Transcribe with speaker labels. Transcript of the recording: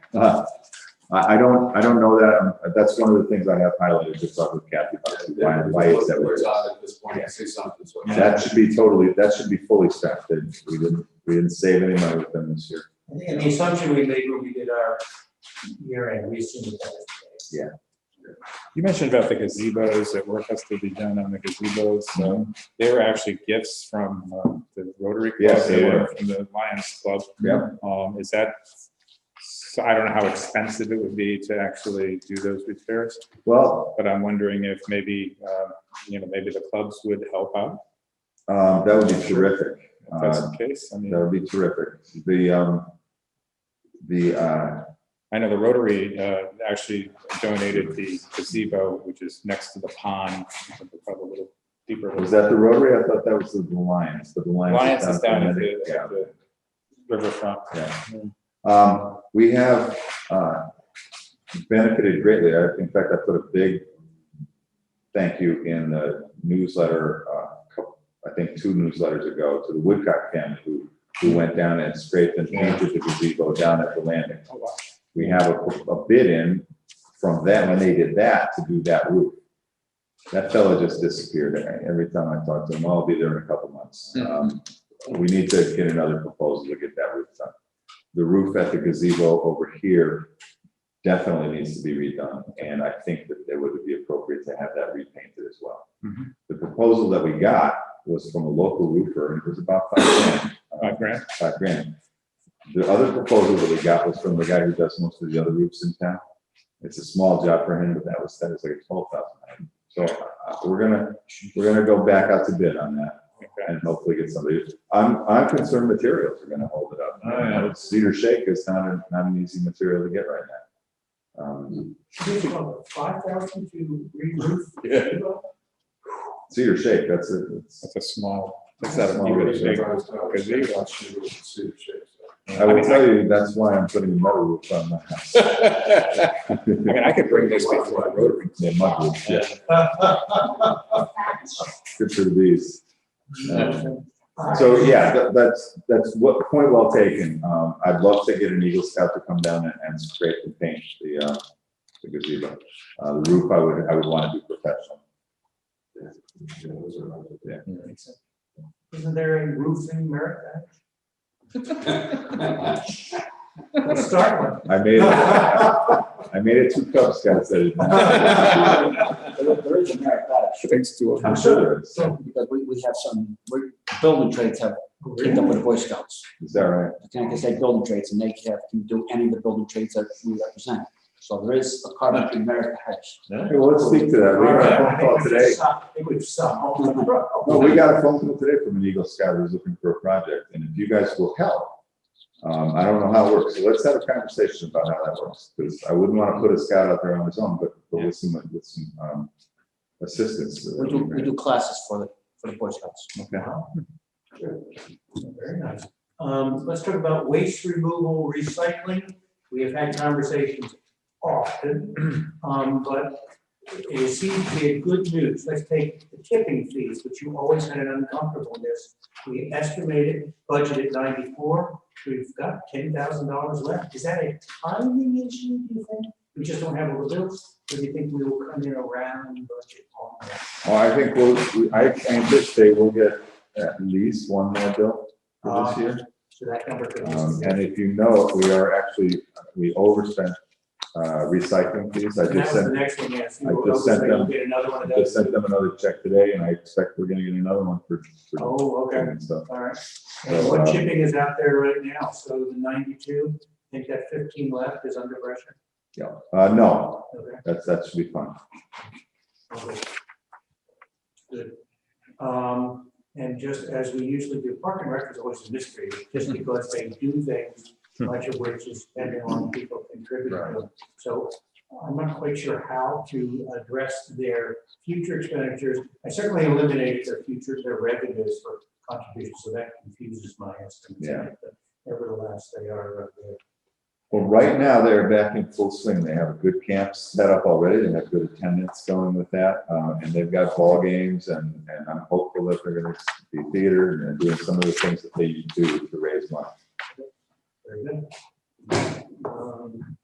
Speaker 1: Uh, I, I don't, I don't know that, um, that's one of the things I have highlighted, just talking with Kathy about, it. why, why is that where
Speaker 2: We're
Speaker 1: it is?
Speaker 2: tired At this point, I say something, so.
Speaker 1: That should be totally, that should be fully staffed, and we didn't, we didn't save any money with them this year.
Speaker 3: I think, and the assumption we made when we did our year-end, we assumed that was the
Speaker 4: You mentioned about the gazebos, that work has to be done on the gazebos, so
Speaker 1: Mm-hmm.
Speaker 4: they were actually gifts from uh, the Rotary Club.
Speaker 1: Yes, they were.
Speaker 4: From the Lions Club.
Speaker 1: Yeah.
Speaker 4: Um, is that, so I don't know how expensive it would be to actually do those repairs,
Speaker 1: Well,
Speaker 4: but I'm wondering if maybe, uh, you know, maybe the clubs would help out,
Speaker 1: um, that would be terrific.
Speaker 4: if that's
Speaker 1: Uh,
Speaker 4: the case. I
Speaker 1: That
Speaker 4: mean,
Speaker 1: would be terrific. The, um, the, uh,
Speaker 4: I know the Rotary, uh, actually donated the gazebo, which is next to the pond, probably a little deeper.
Speaker 1: was that the Rotary? I thought that was the Lions, the Lions.
Speaker 4: Lions is down at
Speaker 1: Connecticut.
Speaker 4: the, at the riverfront.
Speaker 1: Yeah. Um, we have, uh, benefited greatly. I, in fact, I put a big thank you in the newsletter, uh, cou- I think two newsletters ago to the Woodcock family who, who went down and scraped and painted the gazebo down at the landing.
Speaker 4: Oh, wow.
Speaker 1: We have a, a bid in from that, when they did that, to do that roof. That fella just disappeared. Every time I talk to him, I'll be there in a couple months. Um, We need to get another proposal to get that roof done. The roof at the gazebo over here definitely needs to be redone, and I think that it would be appropriate to have that repainted as well.
Speaker 4: Mhm.
Speaker 1: The proposal that we got was from a local roofer, and it was about five grand.
Speaker 4: Five grand?
Speaker 1: Five grand. Uh, The other proposal that we got was from the guy who does most of the other roofs in town. It's a small job for him, but that was, that was like twelve thousand. So uh, we're gonna, we're gonna go back out to bid on that
Speaker 4: Okay.
Speaker 1: and hopefully get somebody. I'm, I'm concerned materials are gonna hold it up.
Speaker 4: Oh, yeah.
Speaker 1: Cedar shake is not, a- not an easy material to get right now. Um,
Speaker 3: case. Five thousand to re-roof?
Speaker 4: Yeah.
Speaker 1: Cedar shake, that's a, it's-
Speaker 4: That's a small.
Speaker 1: That's not a small
Speaker 4: You
Speaker 1: room.
Speaker 4: gotta take-
Speaker 2: Because they want you to see the shape, so.
Speaker 1: I will tell you, that's why I'm putting a metal roof on my house.
Speaker 4: I mean, I could bring this before the Rotary.
Speaker 1: Yeah, mud roof, yeah. Good for these. Um, So, yeah, that, that's, that's what, point well taken. Um, I'd love to get an Eagle Scout to come down and, and scrape and paint the, uh, the gazebo. Uh, the roof, I would, I would want to be professional.
Speaker 2: Yeah, those are right.
Speaker 3: Isn't there a roofing merit? Let's start
Speaker 1: I made, it- I made it two Cub Scouts that did that.
Speaker 5: There there is a merit badge,
Speaker 4: Thanks to.
Speaker 1: I'm sure there is.
Speaker 5: because we, we have some, we- building trades have
Speaker 3: one.
Speaker 5: teamed up with the Boy Scouts.
Speaker 1: Is that right?
Speaker 5: Connecticut State Building Trades, and they have, can do any of the building trades that we represent. So there is a carpentry merit badge.
Speaker 1: Hey, well, let's speak to that. We got a phone call today.
Speaker 3: It would suck.
Speaker 1: No, we got a phone call today from an Eagle Scout who's looking for a project, and if you guys will help, um, I don't know how it works, so let's have a conversation about how that works, because I wouldn't want to put a scout out there on his own, but, but with some, with some, um, assistance.
Speaker 5: We do, we do classes for the, for the Boy Scouts.
Speaker 1: Okay.
Speaker 3: Very nice. Um, let's talk about waste removal, recycling. We have had conversations often, um, but it seems to be a good news. Let's take the tipping fees, which you always had an uncomfortableness. We estimated budgeted ninety-four, we've got ten thousand dollars left. Is that a timing issue, do you think? We just don't have a bill, or do you think we will come in around budget on that?
Speaker 1: Well, I think we'll, we- I anticipate we'll get at least one more bill for this year.
Speaker 3: So that number could be.
Speaker 1: Um, and if you know, we are actually, we overspent, uh, recycling fees, I just
Speaker 3: And that was
Speaker 1: sent
Speaker 3: the next one, yes.
Speaker 1: I just sent them-
Speaker 3: Get another one of
Speaker 1: I just
Speaker 3: those.
Speaker 1: sent them another check today, and I expect we're gonna get another one for, for
Speaker 3: Oh, okay,
Speaker 1: and stuff.
Speaker 3: all right.
Speaker 1: Uh,
Speaker 3: And what chipping is out there right now? So the ninety-two, I think that fifteen left is under pressure.
Speaker 1: Yeah, uh, no,
Speaker 3: Okay.
Speaker 1: that's, that should be fun.
Speaker 3: Okay. Good. Um, and just as we usually do, parking records always a mystery, just because they do things, much of which is depending on people contributing. So I'm not quite sure how to address their future expenditures. I certainly eliminated their future, their revenues for contributions, so that confuses my estimates.
Speaker 1: Yeah.
Speaker 3: But Nevertheless, they are, uh, they're
Speaker 1: Well, right now, they're back in full swing. They have a good camp set up already. They have good attendance going with that. Uh, and they've got ball games and, and I'm hopeful that they're gonna be theater and they're doing some of the things that they do to raise money.
Speaker 3: very good. Um,